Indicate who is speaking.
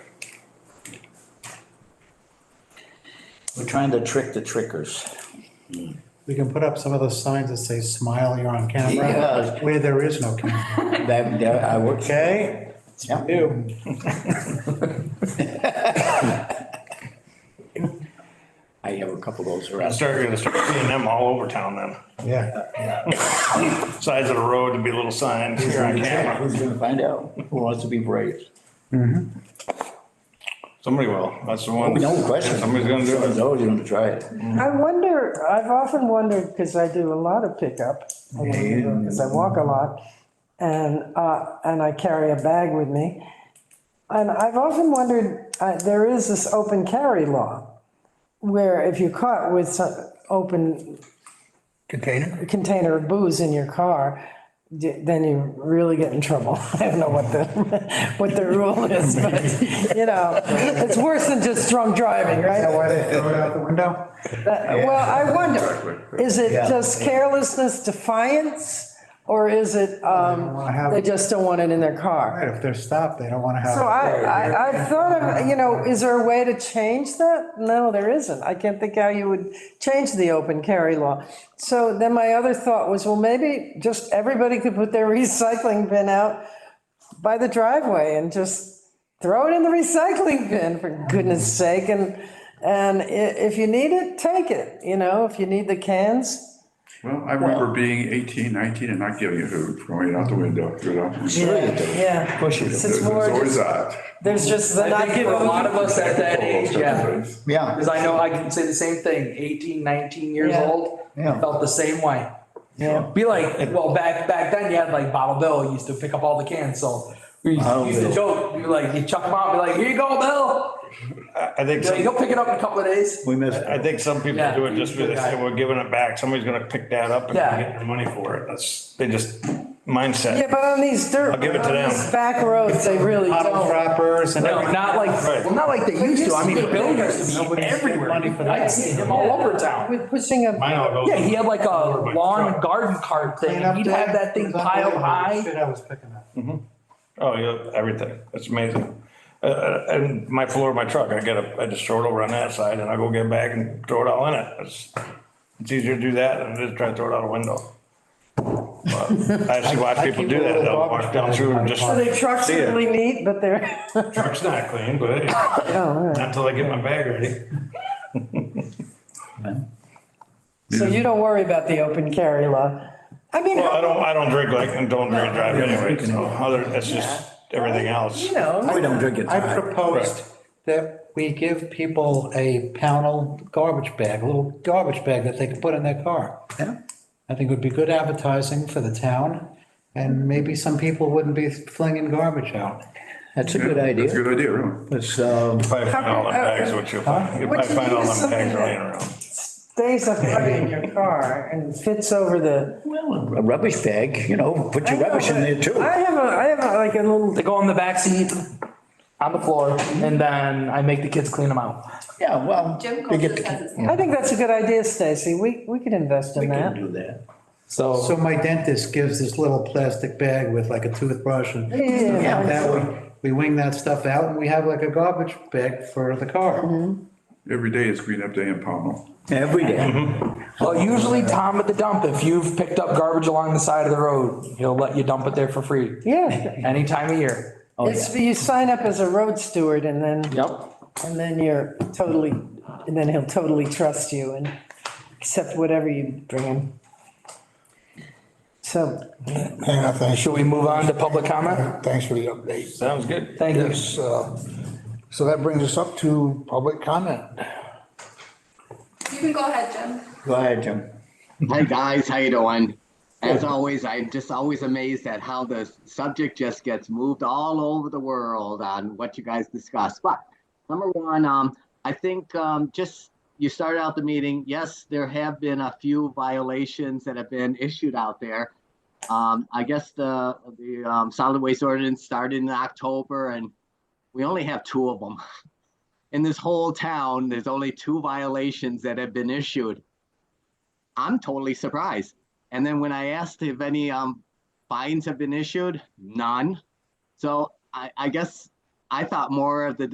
Speaker 1: We're trying to trick the trickers.
Speaker 2: We can put up some of those signs that say smile, you're on camera,
Speaker 1: Yeah.
Speaker 2: where there is no camera.
Speaker 1: That, that, I would,
Speaker 2: Okay?
Speaker 1: Yeah.
Speaker 2: You.
Speaker 1: I have a couple of those
Speaker 3: I
Speaker 1: around.
Speaker 3: started gonna start seeing them all over town then.
Speaker 2: Yeah.
Speaker 3: Sides of the road would be little signs here on camera.
Speaker 1: Who's gonna find out? Who wants to be brave?
Speaker 3: Somebody will. That's the one.
Speaker 1: No question.
Speaker 3: Somebody's gonna do it.
Speaker 1: Somebody's gonna try it.
Speaker 4: I wonder, I've often wondered, because I do a lot of pickup, because I walk a lot, and, uh, and I carry a bag with me. And I've often wondered, uh, there is this open carry law, where if you're caught with some open
Speaker 2: Container?
Speaker 4: container of booze in your car, d- then you really get in trouble. I don't know what the, what the rule is, but, you know, it's worse than just drunk driving, right?
Speaker 2: Why they throw it out the window?
Speaker 4: Well, I wonder, is it just carelessness, defiance, or is it, um,
Speaker 2: wanna have-
Speaker 4: they just don't want it in their car?
Speaker 2: If they're stopped, they don't want to have.
Speaker 4: So I, I, I've thought of, you know, is there a way to change that? No, there isn't. I can't think how you would change the open carry law. So then my other thought was, well, maybe just everybody could put their recycling bin out by the driveway and just throw it in the recycling bin for goodness sake and and i- if you need it take it you know if you need the cans
Speaker 5: Well, I remember being 18, 19 and not giving a hoot, throwing it out the window, threw it out. the window.
Speaker 4: yeah
Speaker 1: Push it.
Speaker 4: it's
Speaker 5: There's
Speaker 4: more
Speaker 5: there's
Speaker 4: just,
Speaker 5: always that.
Speaker 4: there's just the
Speaker 6: I
Speaker 4: not
Speaker 6: think for a lot of us at that age, yeah.
Speaker 1: Yeah,
Speaker 6: Because I know I can say the same thing, 18, 19 years
Speaker 4: Yeah.
Speaker 6: old,
Speaker 1: Yeah.
Speaker 6: felt the same way.
Speaker 4: Yeah.
Speaker 6: Be like, well, back, back then you had like Bottle Bill used to pick up all the cans, so we used
Speaker 1: Bottle
Speaker 6: to- used to
Speaker 1: Bill.
Speaker 6: joke, you like, you chuck them out, be like, here you go, Bill.
Speaker 3: I think,
Speaker 6: Be like,
Speaker 3: some-
Speaker 6: You'll pick it up in a couple of days.
Speaker 1: we missed.
Speaker 3: I think some people
Speaker 6: Yeah.
Speaker 3: do it just because they say, we're giving it back. Somebody's gonna pick that up and
Speaker 6: Yeah.
Speaker 3: get their money for it. That's, they just
Speaker 4: yeah
Speaker 3: mindset.
Speaker 4: but on these dirt
Speaker 3: I'll give it to
Speaker 4: on
Speaker 3: them.
Speaker 4: these back roads they really
Speaker 2: Bottle
Speaker 4: don't
Speaker 2: droppers and.
Speaker 6: No, not like,
Speaker 3: Right.
Speaker 6: well, not like they used to. I mean, Bill used to be
Speaker 2: Nobody's
Speaker 6: everywhere.
Speaker 2: money for
Speaker 6: I'd
Speaker 2: that.
Speaker 6: see him all over town.
Speaker 4: we're pushing a
Speaker 3: Mine all goes.
Speaker 6: Yeah, he had like a
Speaker 3: Over my
Speaker 6: lawn
Speaker 3: truck.
Speaker 6: garden cart thing.
Speaker 2: Clean up
Speaker 6: He'd
Speaker 2: day.
Speaker 6: have that
Speaker 2: It
Speaker 6: thing
Speaker 2: was
Speaker 6: piled
Speaker 2: unbelievable, the
Speaker 6: high.
Speaker 2: Shit I was picking up.
Speaker 3: Oh, yeah, everything. It's amazing. Uh, Uh, and my floor of my truck, I get a, I just throw it over on that side and I go get back and throw it all in it. It's, it's easier to do that than just try to throw it out a window. But I actually watch people do that. They'll walk down through and just,
Speaker 4: so their trucks
Speaker 3: See ya.
Speaker 4: are really neat but they're
Speaker 3: truck's not clean, but hey,
Speaker 4: oh, all right.
Speaker 3: not until I get my bag ready.
Speaker 4: so you don't worry about the open carry law i mean
Speaker 3: Well, I
Speaker 4: how-
Speaker 3: don't, I don't drink like, and don't drink and drive anyway, so other, that's just everything else.
Speaker 4: you know
Speaker 1: We don't drink it.
Speaker 2: I proposed that we give people a panel garbage bag, a little garbage bag that they can put in their car.
Speaker 1: Yeah.
Speaker 2: I think it would be good advertising for the town, and maybe some people wouldn't be flinging garbage out.
Speaker 1: That's a good
Speaker 5: That's a
Speaker 1: idea.
Speaker 5: good idea, really.
Speaker 1: It's, um,
Speaker 3: If I find all them bags, what you'll find, if I
Speaker 4: What you
Speaker 3: find
Speaker 4: need
Speaker 3: all
Speaker 4: is
Speaker 3: them bags
Speaker 4: something
Speaker 3: laying
Speaker 4: that-
Speaker 3: around.
Speaker 4: stays up in your car and fits over the
Speaker 1: a rubbish bag, you know, put your rubbish in there too.
Speaker 4: I have a, I have a, like a little,
Speaker 6: They go in the back seat on the floor and then I make the kids clean them out.
Speaker 1: Yeah, well,
Speaker 7: Jim
Speaker 1: they
Speaker 7: Coulter
Speaker 1: get, the-
Speaker 7: says it's.
Speaker 4: I think that's a good idea, Stacy. We, we could invest
Speaker 1: we
Speaker 4: in
Speaker 1: can
Speaker 4: that.
Speaker 1: do that.
Speaker 6: So
Speaker 2: So my dentist gives this little plastic bag with like a toothbrush and
Speaker 4: Yeah, yeah, yeah.
Speaker 2: stuff that way. We wing that stuff out, and we have like a garbage bag for the car.
Speaker 5: Every day is clean up day in Pownell.
Speaker 1: Every day.
Speaker 6: well, usually Tom at the dump, if you've picked up garbage along the side of the road, he'll let you dump it there for free
Speaker 4: Yeah,
Speaker 6: any time of year.
Speaker 3: Oh,
Speaker 4: it's, you sign up as a road steward and then,
Speaker 6: Yep.
Speaker 4: and then you're totally, and then he'll totally trust you and accept whatever you bring him. So,
Speaker 8: Hang on, thanks,
Speaker 6: Should we move on to public comment?
Speaker 8: thanks for the update.
Speaker 3: Sounds good.
Speaker 6: Thank you.
Speaker 8: Yes, uh, so that brings us up to public comment.
Speaker 7: You can go ahead, Jim.
Speaker 1: Go ahead, Jim.
Speaker 9: Hi guys, how you doing? As always, I'm just always amazed at how the subject just gets moved all over the world on what you guys discuss. But number one, um, I think um, just you started out the meeting. Yes, there have been a few violations that have been issued out there. Um, I guess the the um, solid waste ordinance started in October, and we only have two of them in this whole town. There's only two violations that have been issued. I'm totally surprised. And then when I asked if any um, fines have been issued, none. So I, I guess I thought more of the